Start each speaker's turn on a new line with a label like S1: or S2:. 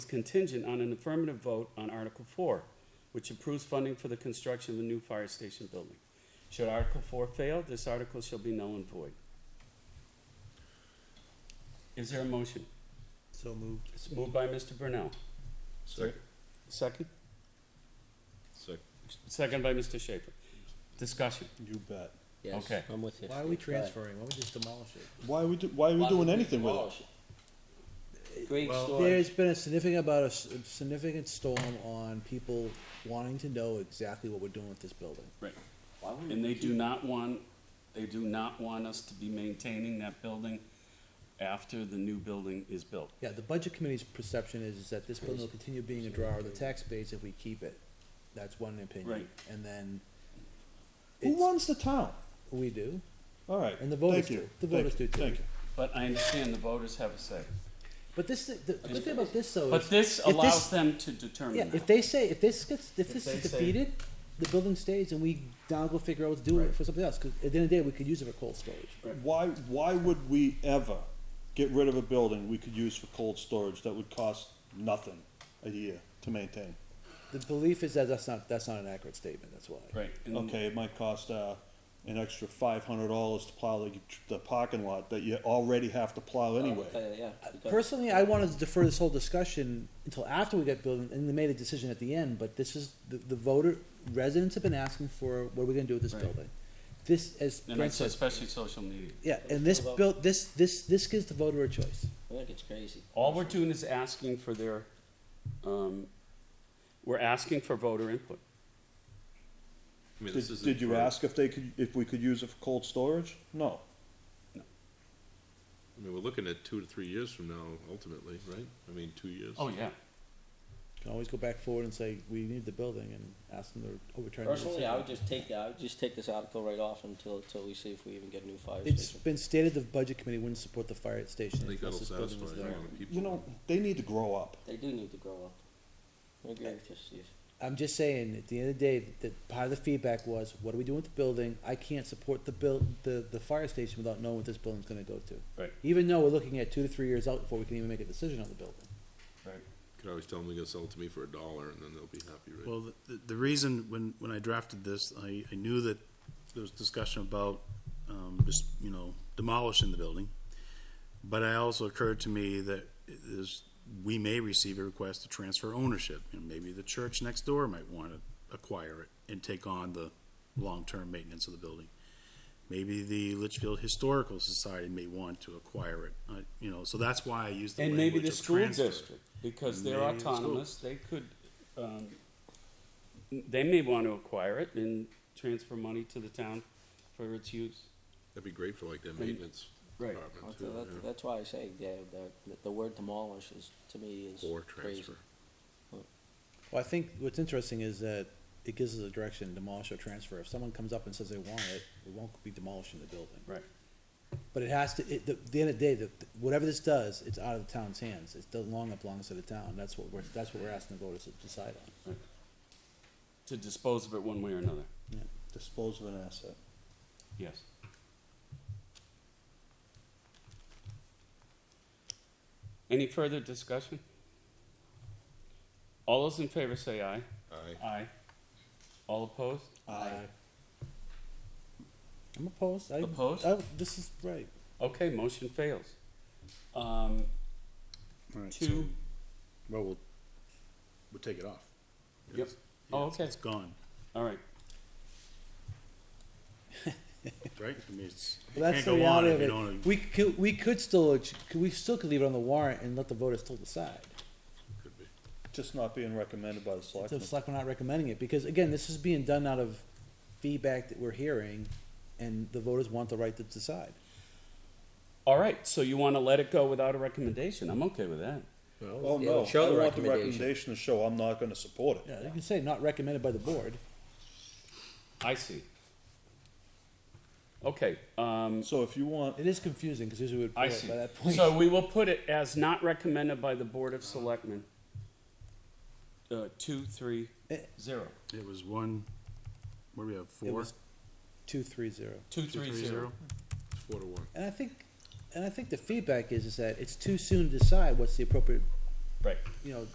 S1: contingent on an affirmative vote on Article Four, which approves funding for the construction of a new fire station building. Should Article Four fail, this article shall be null and void. Is there a motion?
S2: So moved.
S1: It's moved by Mr. Brunel.
S3: Second.
S1: Second?
S3: Second.
S1: Second by Mr. Schaefer. Discussion.
S3: You bet.
S4: Yes,
S1: Okay.
S4: I'm with you.
S2: Why are we
S4: But-
S2: transferring? Why don't we just demolish it?
S3: Why are we, do, why are we
S4: Why
S3: doing
S4: would
S3: anything with it?
S4: demolish it? Great story.
S2: There's been a significant about a s- a significant storm on people wanting to know exactly what we're doing with this building.
S1: Right.
S4: Why would
S1: And
S4: we
S1: they
S4: keep-
S1: do not want, they do not want us to be maintaining that building after the new building is built.
S2: Yeah, the budget committee's perception is, is that this building will continue being a draw on the tax base if we keep it. That's one opinion.
S1: Right.
S2: And then
S3: Who
S2: it's-
S3: runs the town?
S2: we do.
S3: All right.
S2: And the voters
S3: Thank you.
S2: do. The
S3: Thank
S2: voters
S3: you.
S2: do too.
S3: Thank you.
S1: But I understand the voters have a say.
S2: But this, the, the good thing about this though is.
S1: But this
S2: if
S1: allows them to
S2: Yeah,
S1: determine
S2: if
S1: that.
S2: they say, if this gets, if
S1: If
S2: this
S1: they
S2: is
S1: say-
S2: defeated, the building stays and we now go figure out what to do
S1: Right.
S2: for something else, cause at the end of the day, we could use it for cold storage.
S3: Why, why would we ever get rid of a building we could use for cold storage that would cost nothing a year to maintain?
S2: The belief is that that's not, that's not an accurate statement, that's why.
S1: Right. and-
S3: Okay, it might cost, uh, an extra five hundred dollars to plow the, the parking lot that you already have to
S4: Uh,
S3: plow anyway.
S4: Okay, yeah, because-
S2: Personally, I wanted to defer this whole discussion until after we get building, and they made a decision at the end, but this is, the, the voter, residents have been asking for, what are we gonna do with this
S1: Right.
S2: building? This, as
S1: And
S2: Brent
S1: it's
S2: said,
S1: especially social media.
S2: yeah, and this built, this, this, this gives the voter a choice.
S4: I think it's crazy.
S1: All we're doing is asking for their, um, we're asking for voter input.
S5: I mean,
S3: Did,
S5: this isn't
S3: did you
S5: for-
S3: ask if they could, if we could use it for cold storage? No.
S5: I mean, we're looking at two to three years from now, ultimately, right? I mean, two years.
S1: Oh, yeah.
S2: Can always go back forward and say, we need the building, and ask them to overturn the decision.
S4: Personally, I would just take, I would just take this article right off until, until we see if we even get a new fire
S2: It's
S4: station.
S2: been stated the budget committee wouldn't support the fire station.
S5: I think
S2: unless
S5: that'll
S2: this building
S5: satisfy
S2: was
S5: a
S2: there.
S5: lot of people.
S3: You know, they need to grow up.
S4: They do need to grow up. I agree with you, Steve.
S2: I'm just saying, at the end of the day, that part of the feedback was, what are we doing with the building? I can't support the buil- the, the fire station without knowing what this building's gonna go to.
S1: Right.
S2: Even though we're looking at two to three years out before we can even make a decision on the building.
S5: Could always tell them they're gonna sell it to me for a dollar, and then they'll be happy, right?
S6: Well, the, the reason, when, when I drafted this, I, I knew that there was discussion about, um, just, you know, demolishing the building. But I also occurred to me that is, we may receive a request to transfer ownership, and maybe the church next door might wanna acquire it and take on the long-term maintenance of the building. Maybe the Litchfield Historical Society may want to acquire it, uh, you know, so that's why I used the
S1: And
S6: language
S1: maybe
S6: of
S1: the school
S6: transfer.
S1: district, because they're
S6: Maybe the school.
S1: autonomous, they could, um, they may want to acquire it and transfer money to the town for its use.
S5: That'd be great for like their maintenance
S1: Right.
S5: department
S4: Oh, So
S5: too,
S4: that-
S5: yeah.
S4: That's why I say, yeah, the, the word demolish is, to me, is
S5: or
S4: crazy.
S5: transfer.
S2: Well, I think what's interesting is that it gives us a direction, demolish or transfer. If someone comes up and says they want it, we won't be demolishing the building.
S1: Right.
S2: But it has to, it, the, the end of the day, the, whatever this does, it's out of the town's hands. It doesn't long belongs to the town. That's what we're, that's what we're asking the voters to decide on.
S1: To dispose of it one way or another.
S3: Dispose of an asset.
S1: Yes. Any further discussion? All those in favor say aye.
S5: Aye.
S1: Aye. All opposed?
S3: Aye.
S2: I'm opposed. I,
S1: Opposed?
S2: I, this is right.
S1: Okay, motion fails. Um,
S6: All right, so-
S1: two,
S6: Well, we'll, we'll take it off.
S1: yep, Oh, okay.
S6: It's gone,
S1: all right.
S6: right? I mean, it's, it
S2: Well, that's
S6: can't
S2: the
S6: go on
S2: reality
S6: if
S2: of
S6: you
S2: it.
S6: don't.
S2: We could, we could still, we still could leave it on the warrant and let the voters still decide.
S5: Could be.
S3: Just not being recommended by the
S2: So
S3: selectmen.
S2: it's like we're not recommending it, because again, this is being done out of feedback that we're hearing, and the voters want the right to decide.
S1: All right, so you want to let it go without a recommendation? I'm okay with that.
S3: Oh,
S4: Yeah,
S3: no,
S4: show
S3: I
S4: the
S3: want the
S4: recommendation.
S3: recommendation to show I'm not gonna support it.
S2: Yeah, you can say not recommended by the board.
S1: I see. Okay, um,
S3: So if you want,
S2: It is confusing, because usually we'd pull
S1: I
S2: it
S1: see.
S2: by that point.
S1: So we will put it as not recommended by the Board of Selectmen. Uh, two, three,
S2: Eh.
S1: zero.
S6: It was one, what do we have,
S2: It
S6: four?
S2: was two, three, zero.
S1: Two,
S6: Two,
S1: three, zero.
S5: It's four to one.
S2: And I think, and I think the feedback is, is that it's too soon to decide what's the appropriate,
S1: Right.
S2: you know,